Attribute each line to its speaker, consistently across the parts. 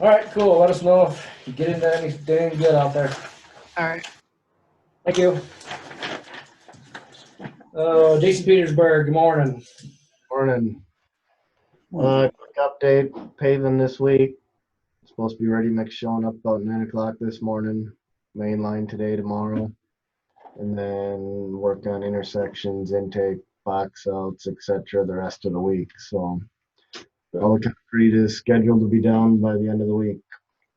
Speaker 1: All right, cool. Let us know if you get into anything good out there.
Speaker 2: All right.
Speaker 1: Thank you. Uh, Jason Petersburg, good morning.
Speaker 3: Morning. Uh, quick update, paving this week. Supposed to be ready mix showing up about nine o'clock this morning. Main line today, tomorrow. And then work on intersections, intake, box outs, et cetera, the rest of the week, so. All the concrete is scheduled to be down by the end of the week.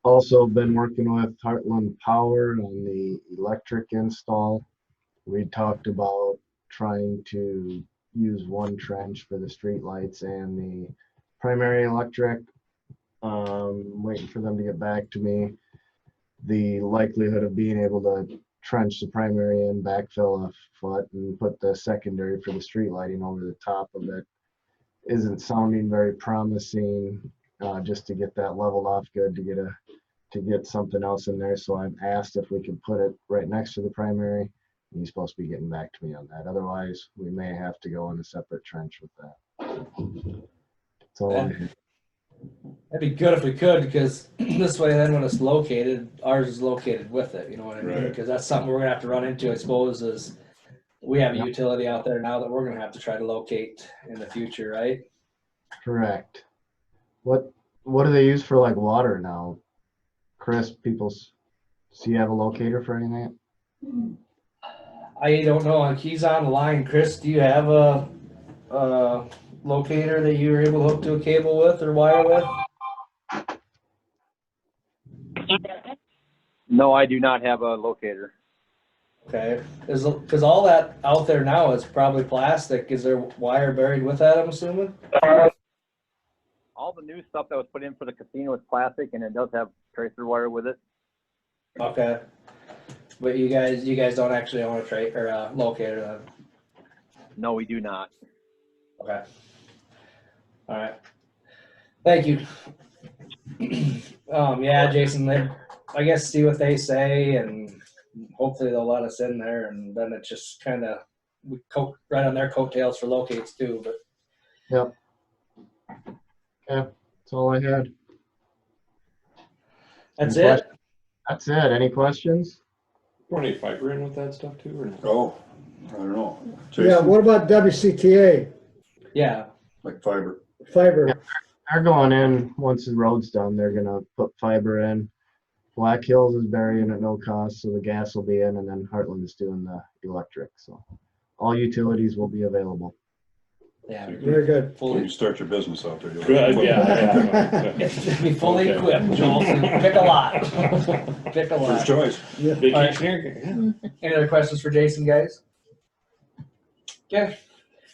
Speaker 3: Also been working with Heartland Power on the electric install. We talked about trying to use one trench for the streetlights and the primary electric. Um, waiting for them to get back to me. The likelihood of being able to trench the primary and backfill a foot and put the secondary for the street lighting over the top of it isn't sounding very promising, uh, just to get that leveled off good, to get a, to get something else in there. So I've asked if we could put it right next to the primary. And He's supposed to be getting back to me on that. Otherwise, we may have to go in a separate trench with that. So,
Speaker 1: Yeah. That'd be good if we could, because this way then when it's located, ours is located with it, you know what I mean?
Speaker 4: Right.
Speaker 1: Because that's something we're gonna have to run into, I suppose, is we have a
Speaker 3: Yep.
Speaker 1: utility out there now that we're gonna have to try to locate in the future, right?
Speaker 3: correct. What, what do they use for like water now? Chris, people's, so you have a locator for anything?
Speaker 1: I don't know, like, he's on the line. Chris, do you have a, uh, locator that you were able to hook to a cable with or wire with?
Speaker 5: No, I do not have a locator.
Speaker 1: Okay, is, because all that out there now is probably plastic. Is there wire buried with that, I'm assuming?
Speaker 5: All the new stuff that was put in for the casino is plastic and it does have tracer wire with it.
Speaker 1: Okay. But you guys, you guys don't actually own a trade or a locator then?
Speaker 5: No, we do not.
Speaker 1: Okay. All right. Thank you. Um, yeah, Jason, they, I guess see what they say and hopefully they'll let us in there and then it's just kind of, we coat, right on their coattails for locates too, but
Speaker 3: That's all I had.
Speaker 1: that's
Speaker 3: Any
Speaker 1: it.
Speaker 3: questions? That's it. Any questions?
Speaker 6: Were any fiber in with that stuff too, or not?
Speaker 4: Oh, I don't know.
Speaker 7: Yeah,
Speaker 4: Jason,
Speaker 7: what about WCTA
Speaker 1: Yeah,
Speaker 4: like fiber.
Speaker 7: fiber?
Speaker 3: They're going in, once the road's done, they're gonna put fiber in. Black Hills is burying at no cost, so the gas will be in, and then Heartland is doing the electric, so. All utilities will be available.
Speaker 1: yeah.
Speaker 7: Very good.
Speaker 4: When
Speaker 1: Fully,
Speaker 4: you start your business out there. you'll-
Speaker 6: Good, yeah.
Speaker 1: be fully equipped, Joel. Pick a lot. Pick a
Speaker 4: First
Speaker 1: lot.
Speaker 4: choice.
Speaker 6: Vacationing.
Speaker 1: Any other questions for Jason, guys? Okay.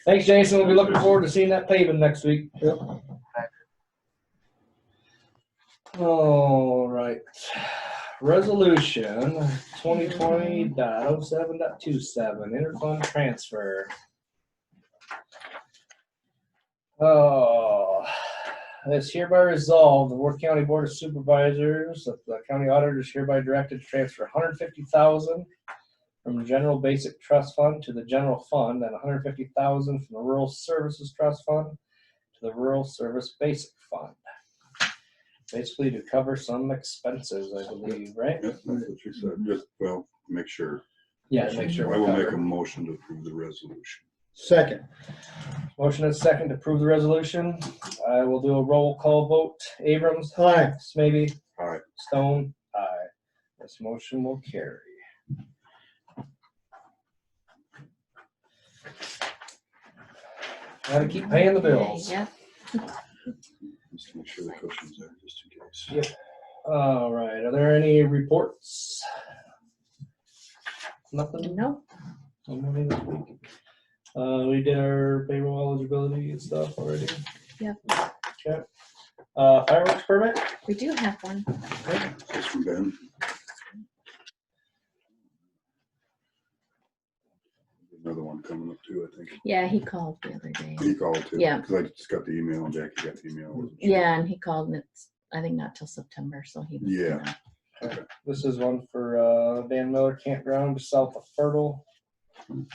Speaker 1: Thanks, Jason. We'll be looking forward to seeing that paving next week. Yep. All right. Resolution twenty twenty dot oh seven dot two seven, interfund transfer. Oh, it's hereby resolved, the Worth County Board of Supervisors, that the county auditor is hereby directed to transfer hundred fifty thousand from the general basic trust fund to the general fund and 150,000 from the rural services trust fund to the rural service basic fund. Basically to cover some expenses, I believe, right?
Speaker 4: Yep, That's what she said. Just, well, make sure.
Speaker 1: Yeah, to make sure.
Speaker 4: I
Speaker 1: we're
Speaker 4: will make a
Speaker 1: covered.
Speaker 4: motion to approve the resolution.
Speaker 7: Second,
Speaker 1: Motion is second to approve the resolution. I will do a roll call vote. Abrams,
Speaker 7: aye,
Speaker 1: Smithy,
Speaker 4: Aye.
Speaker 1: Stone, aye. This motion will carry. Gotta keep paying the bills.
Speaker 8: Yeah.
Speaker 4: Just to make sure the cushion's there, just in case.
Speaker 1: Yep. All right, are there any reports? Nothing?
Speaker 8: Nope.
Speaker 1: Nobody this week? Uh, we did our payroll eligibility and stuff already.
Speaker 8: Yep.
Speaker 1: Okay. Uh, fireworks permit?
Speaker 8: We do have one.
Speaker 4: That's from Ben. Another one coming up too, I think.
Speaker 8: Yeah, he called the other day.
Speaker 4: He called too.
Speaker 8: Yeah.
Speaker 4: Because I just got the email and Jackie got the email. wasn't she?
Speaker 8: Yeah, and he called and it's, I think not till September, so he. was
Speaker 4: Yeah.
Speaker 8: gonna-
Speaker 1: This is one for uh, Van Miller Campground just south of Fertile. Um,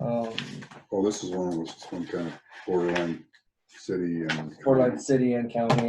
Speaker 4: Oh, this is one of those, some kind of borderline city and.
Speaker 1: Portland City and County